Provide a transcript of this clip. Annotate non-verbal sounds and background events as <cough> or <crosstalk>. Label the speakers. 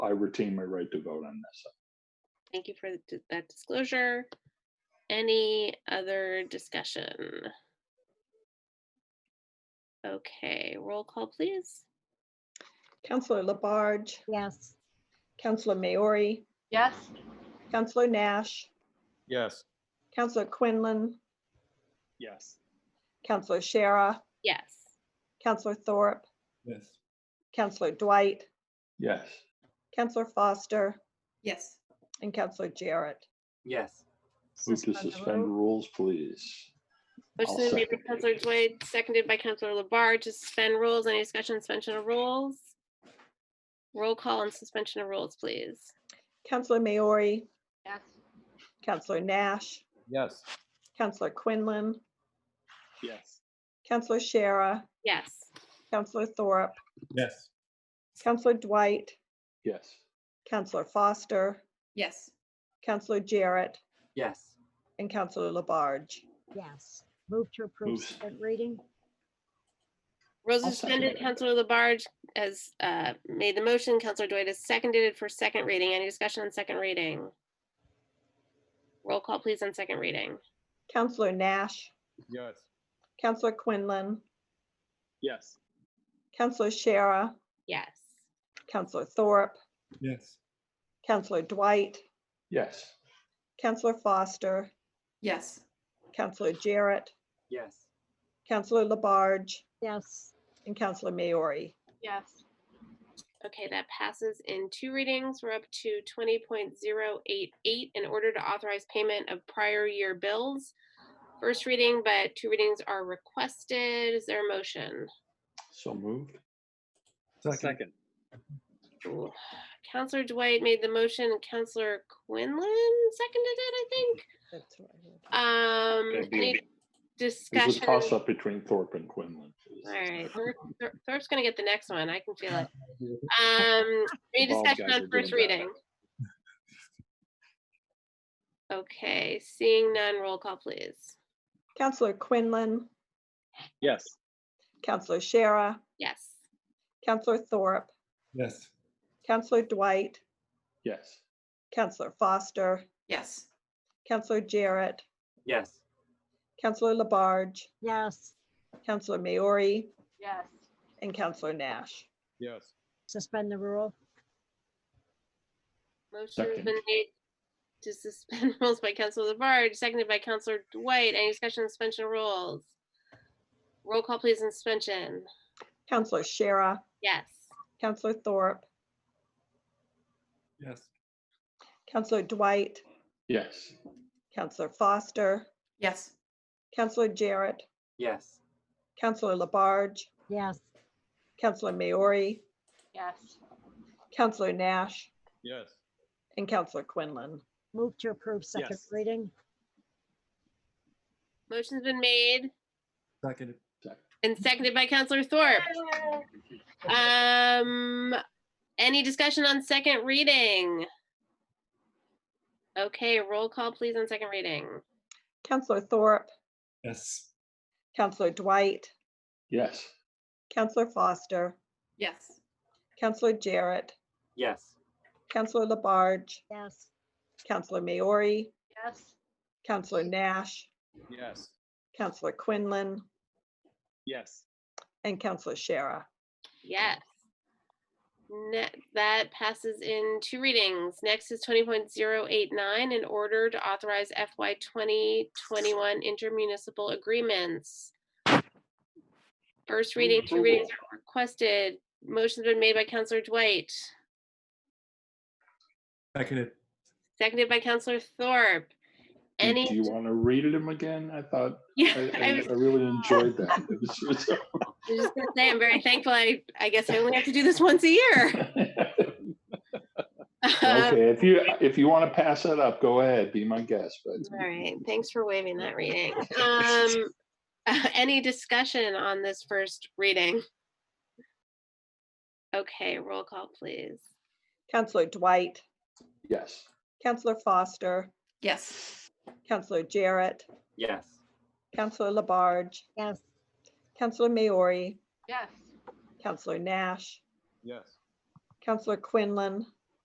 Speaker 1: I retain my right to vote on this.
Speaker 2: Thank you for th- that disclosure. Any other discussion? Okay, roll call, please.
Speaker 3: Counselor Labarge,
Speaker 4: Yes.
Speaker 3: Counselor Maori,
Speaker 5: Yes.
Speaker 3: Counselor Nash,
Speaker 6: Yes.
Speaker 3: Counselor Quinlan,
Speaker 6: Yes.
Speaker 3: Counselor Shara,
Speaker 2: Yes.
Speaker 3: Counselor Thorpe,
Speaker 6: Yes.
Speaker 3: Counselor Dwight,
Speaker 1: Yes,
Speaker 3: Counselor Foster,
Speaker 7: Yes.
Speaker 3: and Counselor Jarrett.
Speaker 8: Yes.
Speaker 1: move to suspend rules, please.
Speaker 2: Motion
Speaker 1: I'll
Speaker 2: made by
Speaker 1: second.
Speaker 2: Counselor Dwight, seconded by Counselor Labarge to suspend rules. Any discussion, on suspension of rules? Roll call on suspension of rules, please.
Speaker 3: Counselor Maori,
Speaker 5: Yes.
Speaker 3: Counselor Nash,
Speaker 6: Yes.
Speaker 3: Counselor Quinlan,
Speaker 6: Yes.
Speaker 3: Counselor Shara,
Speaker 2: Yes.
Speaker 3: Counselor Thorpe,
Speaker 6: Yes.
Speaker 3: Counselor Dwight,
Speaker 1: Yes,
Speaker 3: Counselor Foster,
Speaker 7: Yes.
Speaker 3: Counselor Jarrett,
Speaker 8: Yes.
Speaker 3: and Counselor Labarge.
Speaker 4: Yes. Move to approve
Speaker 1: Move.
Speaker 4: second reading?
Speaker 2: Rules
Speaker 1: I'll
Speaker 2: are
Speaker 1: second
Speaker 2: suspended.
Speaker 1: it.
Speaker 2: Counselor Labarge has uh, made the motion. Counselor Dwight has seconded it for second reading. Any discussion on second reading? Roll call, please, on second reading.
Speaker 3: Counselor Nash,
Speaker 6: Yes.
Speaker 3: Counselor Quinlan,
Speaker 6: Yes.
Speaker 3: Counselor Shara,
Speaker 2: Yes.
Speaker 3: Counselor Thorpe,
Speaker 6: Yes.
Speaker 3: Counselor Dwight,
Speaker 1: yes,
Speaker 3: Counselor Foster,
Speaker 7: Yes.
Speaker 3: Counselor Jarrett,
Speaker 8: Yes.
Speaker 3: Counselor Labarge,
Speaker 4: Yes.
Speaker 3: and Counselor Maori.
Speaker 5: Yes.
Speaker 2: Okay, that passes in two readings. We're up to 20.088 in order to authorize payment of prior year bills. First reading, but two readings are requested. Is there a motion?
Speaker 1: so moved.
Speaker 6: Second.
Speaker 2: Ooh. Counselor Dwight made the motion. Counselor Quinlan seconded it, I think.
Speaker 3: That's what I heard.
Speaker 2: Um,
Speaker 1: Okay, we-
Speaker 2: any
Speaker 1: There's a
Speaker 2: discussion? All
Speaker 1: toss-up between Thorpe and Quinlan. please.
Speaker 2: right, Thor- Thor- Thorpe's gonna get the next one, I
Speaker 1: <laughs>
Speaker 2: can feel it. Um, any
Speaker 1: Bob
Speaker 2: discussion
Speaker 1: guys are
Speaker 2: on
Speaker 1: doing
Speaker 2: first
Speaker 1: bad.
Speaker 2: reading? Okay, seeing none, roll call please.
Speaker 3: Counselor Quinlan,
Speaker 6: Yes.
Speaker 3: Counselor Shara,
Speaker 2: Yes,
Speaker 3: Counselor Thorpe,
Speaker 6: Yes.
Speaker 3: Counselor Dwight,
Speaker 1: Yes,
Speaker 3: Counselor Foster,
Speaker 7: Yes.
Speaker 3: Counselor Jarrett,
Speaker 8: Yes.
Speaker 3: Counselor Labarge,
Speaker 4: Yes.
Speaker 3: Counselor Maori,
Speaker 5: Yes.
Speaker 3: and Counselor Nash.
Speaker 6: Yes.
Speaker 4: Suspend the rule?
Speaker 2: motion has
Speaker 1: Second.
Speaker 2: been made to suspend <laughs> rules by Counselor Labarge, seconded by Counselor Dwight. Any discussion on suspension of rules? Roll call please on suspension.
Speaker 3: Counselor Shara,
Speaker 2: Yes,
Speaker 3: Counselor Thorpe,
Speaker 6: Yes.
Speaker 3: Counselor Dwight,
Speaker 1: yes,
Speaker 3: Counselor Foster,
Speaker 7: Yes.
Speaker 3: Counselor Jarrett,
Speaker 8: Yes.
Speaker 3: Counselor Labarge,
Speaker 4: Yes.
Speaker 3: Counselor Maori,
Speaker 5: Yes.
Speaker 3: Counselor Nash,
Speaker 6: Yes.
Speaker 3: and Counselor Quinlan.
Speaker 4: Move to approve second
Speaker 6: Yes.
Speaker 4: reading?
Speaker 2: motion's been made
Speaker 6: Second.
Speaker 2: And seconded by Counselor Thorpe. Um, any discussion on second reading? Okay, roll call please on second reading.
Speaker 3: Counselor Thorpe,
Speaker 6: Yes.
Speaker 3: Counselor Dwight,
Speaker 1: yes,
Speaker 3: Counselor Foster,
Speaker 7: Yes.
Speaker 3: Counselor Jarrett,
Speaker 8: Yes.
Speaker 3: Counselor Labarge,
Speaker 4: Yes.
Speaker 3: Counselor Maori,
Speaker 5: Yes.
Speaker 3: Counselor Nash,
Speaker 6: Yes.
Speaker 3: Counselor Quinlan,
Speaker 6: Yes.
Speaker 3: and Counselor Shara.
Speaker 2: Yes. Ne- that passes in two readings. Next is twenty point zero eight nine, in order to authorize FY twenty twenty-one intermunicipal agreements. First reading, two readings are requested. Motion's been made by Counselor Dwight.
Speaker 6: Seconded.
Speaker 2: Seconded by Counselor Thorpe.
Speaker 1: Do
Speaker 2: Any,
Speaker 1: do you want to read them again? I thought,
Speaker 2: <laughs> yeah,
Speaker 1: I- I
Speaker 2: I
Speaker 1: I
Speaker 2: was
Speaker 1: really enjoyed
Speaker 2: <laughs>
Speaker 1: that. It was-
Speaker 2: I was just gonna say, I'm very thankful. I, I guess I only have to do this once a year. Um,
Speaker 1: <laughs> Okay, if you, if you want to pass it up, go ahead, be my guest, but
Speaker 2: All right, thanks for waiving that reading. Um, <laughs> any discussion on this first reading? Okay, roll call, please.
Speaker 3: Counselor Dwight,
Speaker 1: yes.
Speaker 3: Counselor Foster,
Speaker 7: Yes.
Speaker 3: Counselor Jarrett,
Speaker 8: Yes.
Speaker 3: Counselor Labarge,
Speaker 4: Yes.
Speaker 3: Counselor Maori,
Speaker 5: Yes.
Speaker 3: Counselor Nash,
Speaker 6: Yes.
Speaker 3: Counselor Quinlan,